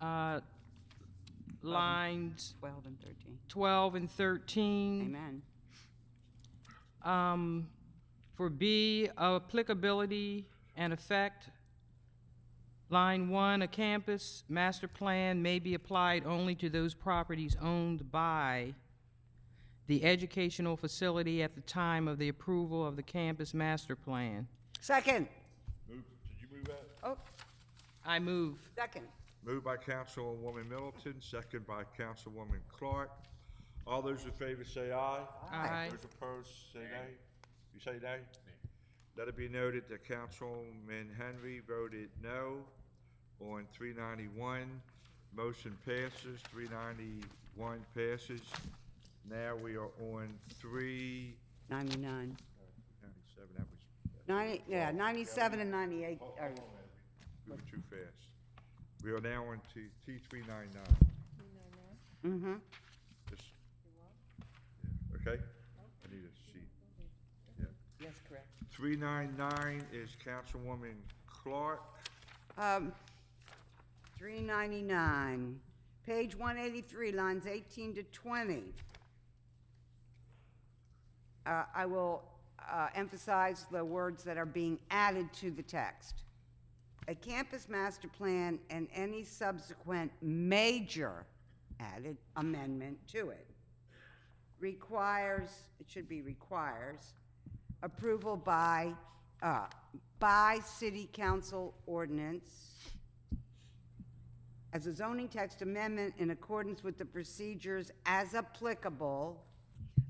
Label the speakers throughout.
Speaker 1: uh, lines
Speaker 2: 12 and 13.
Speaker 1: 12 and 13.
Speaker 2: Amen.
Speaker 1: Um, For B, applicability and effect, line one, a campus master plan may be applied only to those properties owned by the educational facility at the time of the approval of the campus master plan.
Speaker 2: Second.
Speaker 3: Move, did you move that?
Speaker 2: Oh,
Speaker 1: I move.
Speaker 2: second.
Speaker 3: Moved by Councilwoman Middleton, second by Councilwoman Clark. All those in favor say aye.
Speaker 1: Aye.
Speaker 3: Those opposed, say nay. You say nay? Let it be noted that Councilman Henry voted no on three ninety-one. Motion passes, three ninety-one passes. Now we are on three
Speaker 2: 99.
Speaker 3: ninety-seven, that was,
Speaker 2: 90, yeah, 97 and 98 are,
Speaker 3: we were too fast. We are now on T, T three nine nine.
Speaker 2: mm-hmm.
Speaker 3: Just- Yeah, Okay? I need a sheet. Yeah.
Speaker 2: Yes, correct.
Speaker 3: Three nine nine is Councilwoman Clark.
Speaker 2: Um, 399, page 183, lines 18 to 20. Uh, I will uh, emphasize the words that are being added to the text. A campus master plan and any subsequent major added amendment to it requires, it should be requires, approval by, uh, by city council ordinance as a zoning text amendment in accordance with the procedures as applicable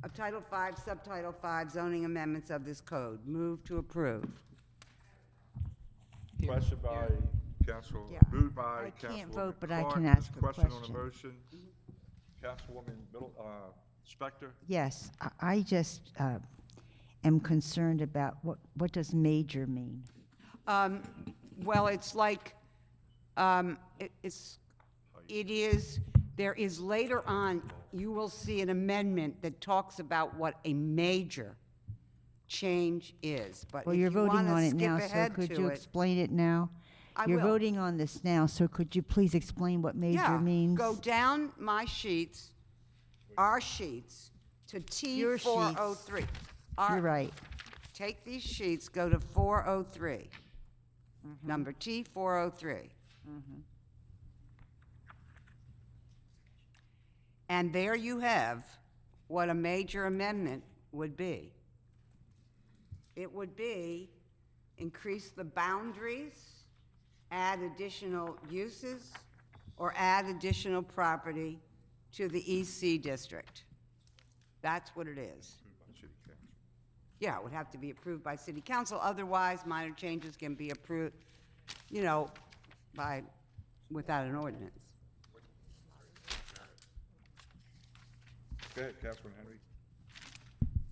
Speaker 2: of Title V, Subtitle V zoning amendments of this code. Move to approve.
Speaker 3: Question by Council,
Speaker 2: Yeah.
Speaker 3: moved by
Speaker 4: I
Speaker 3: Councilwoman Clark.
Speaker 4: can't vote, but I can
Speaker 3: There's
Speaker 4: ask a
Speaker 3: on the
Speaker 4: question.
Speaker 3: motion. Councilwoman Middle, uh, Spector?
Speaker 4: Yes, I- I just uh, am concerned about what, what does major mean?
Speaker 2: Um, well, it's like, um, it- it's, it is, there is later on, you will see an amendment that talks about what a major change is, but
Speaker 4: Well,
Speaker 2: Uh, if
Speaker 4: you're
Speaker 2: you
Speaker 4: voting
Speaker 2: wanna
Speaker 4: on it
Speaker 2: skip
Speaker 4: now, so
Speaker 2: ahead
Speaker 4: could
Speaker 2: to
Speaker 4: you
Speaker 2: it-
Speaker 4: explain it now?
Speaker 2: I
Speaker 4: You're
Speaker 2: will.
Speaker 4: voting on this now, so could you please explain what major
Speaker 2: Yeah,
Speaker 4: means?
Speaker 2: Go down my sheets, our sheets, to T
Speaker 4: Your sheets.
Speaker 2: four oh three.
Speaker 4: You're right.
Speaker 2: Take these sheets, go to four oh three, number T four oh three. And there you have what a major amendment would be. It would be increase the boundaries, add additional uses, or add additional property to the EC district. That's what it is. Yeah, it would have to be approved by city council, otherwise minor changes can be approved, you know, by, without an ordinance.
Speaker 3: Go ahead, Councilman Henry.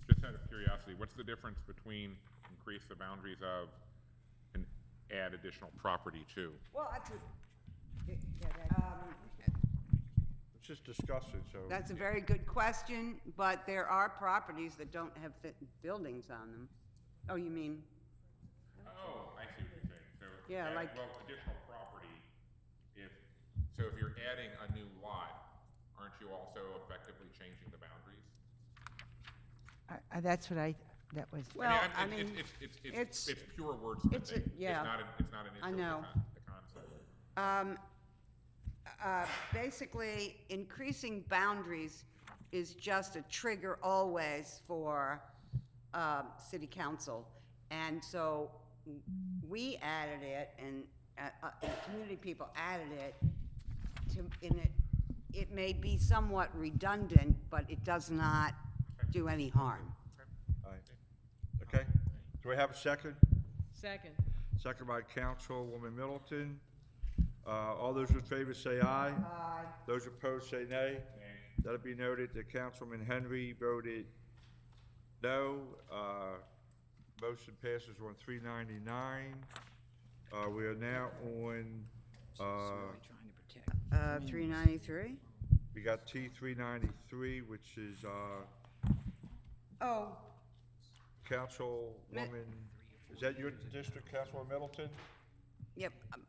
Speaker 5: Just out of curiosity, what's the difference between increase the boundaries of and add additional property to?
Speaker 2: Well, that's
Speaker 3: Let's just discuss it, so.
Speaker 2: Um, That's a very good question, but there are properties that don't have fit- buildings on them. Oh, you mean,
Speaker 5: Oh, I see what you're saying, so.
Speaker 2: Yeah,
Speaker 5: add-
Speaker 2: like-
Speaker 5: Well, additional property, if, so if you're adding a new lot, aren't you also effectively changing the boundaries?
Speaker 4: I- I- That's what I, that was,
Speaker 5: I mean,
Speaker 2: well,
Speaker 5: I'm-
Speaker 2: I
Speaker 5: it's-
Speaker 2: mean,
Speaker 5: It's, it's,
Speaker 2: it's-
Speaker 5: it's, it's pure wordsmithing.
Speaker 2: it's a- yeah.
Speaker 5: It's not, a- it's not an
Speaker 2: I
Speaker 5: issue
Speaker 2: know.
Speaker 5: of the con- the concept.
Speaker 2: um, uh, basically, increasing boundaries is just a trigger always for, um, city council. And so w- we added it and, uh, uh, and community people added it to, in it, it may be somewhat redundant, but it does not do any harm.
Speaker 3: All right. Okay, do we have a second?
Speaker 1: Second.
Speaker 3: Second by Councilwoman Middleton. Uh, all those in favor say aye. Aye. Those opposed say nay. Let it be noted that Councilman Henry voted no. Uh, motion passes on three ninety-nine. Uh, we are now on, uh,
Speaker 2: Uh, three ninety-three?
Speaker 3: we got T three ninety-three, which is, uh,
Speaker 2: Oh,
Speaker 3: Councilwoman, is that your district, Councilwoman Middleton?
Speaker 2: yep, um,